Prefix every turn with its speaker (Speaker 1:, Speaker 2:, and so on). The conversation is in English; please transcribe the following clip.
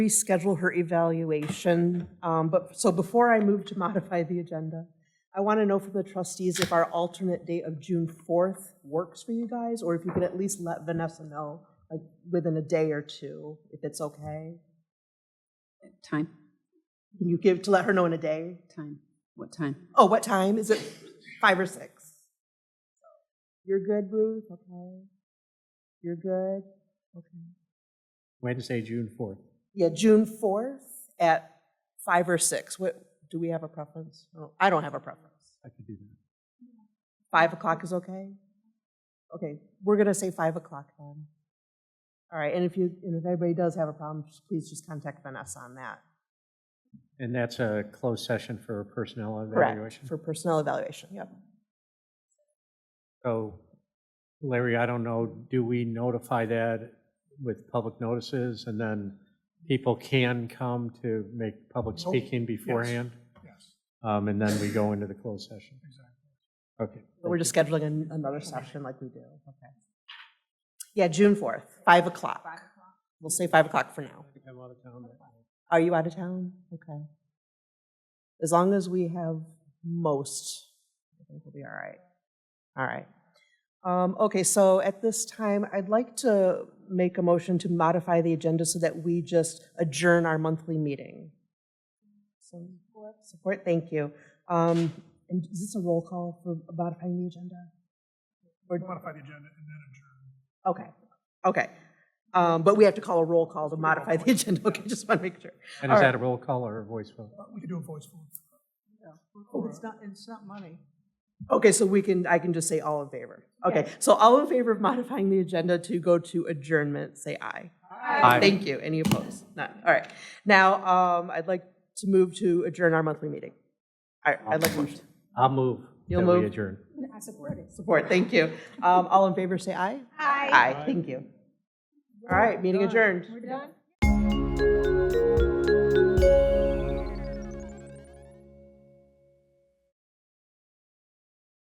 Speaker 1: reschedule her evaluation. Um, But, so before I move to modify the agenda, I want to know from the trustees if our alternate date of June 4th works for you guys, or if you could at least let Vanessa know, like, within a day or two, if it's okay.
Speaker 2: Time,
Speaker 1: Can you give, to let her know in a day?
Speaker 2: time, what time?
Speaker 1: Oh, what time? Is it five or six? You're good, Ruth? Okay. You're good? Okay.
Speaker 3: Wednesday, June 4th.
Speaker 1: Yeah, June 4th at five or six. What, do we have a preference? No, I don't have a preference.
Speaker 3: I could do that.
Speaker 1: Five o'clock is okay? Okay, we're gonna say five o'clock then. All right, and if you, and if anybody does have a problem, just- please just contact Vanessa on that.
Speaker 3: And that's a closed session for personnel
Speaker 1: Correct,
Speaker 3: evaluation?
Speaker 1: for personnel evaluation, yep.
Speaker 3: So Larry, I don't know, do we notify that with public notices? And then people can come to make public
Speaker 4: Nope.
Speaker 3: speaking beforehand?
Speaker 4: Yes,
Speaker 3: Um, And then we go into the closed session?
Speaker 4: exactly.
Speaker 3: Okay.
Speaker 1: But We're just scheduling an- another session like we do, okay. Yeah, June 4th, five o'clock. We'll say five o'clock for now.
Speaker 3: I think I'm out of town that night.
Speaker 1: Are you out of town? Okay. As long as we have most, I think we'll be all right. All right. Um, Okay, so at this time, I'd like to make a motion to modify the agenda so that we just adjourn our monthly meeting. Support. Support, thank you. Um, And is this a roll call for modifying the agenda? Or-
Speaker 4: Modify the agenda and then adjourn.
Speaker 1: Okay, okay. Um, But we have to call a roll call to modify the agenda, okay, just want to make sure.
Speaker 3: And
Speaker 1: All
Speaker 3: is
Speaker 1: right.
Speaker 3: that a roll call or a voice vote?
Speaker 4: Uh, We could do a voice vote.
Speaker 1: Oh, it's not, it's not money. Okay, so we can, I can just say all in favor. Okay, so all in favor of modifying the agenda to go to adjournment, say aye.
Speaker 3: Aye.
Speaker 1: Thank you. Any opposed? None. All right. Now, um, I'd like to move to adjourn our monthly meeting. All right, I'd like to motion.
Speaker 3: I'll move.
Speaker 1: You'll
Speaker 3: that
Speaker 1: move?
Speaker 3: We adjourn.
Speaker 1: support, thank you. Um, all in favor, say aye. Aye. Aye, thank you. All right, meeting adjourned.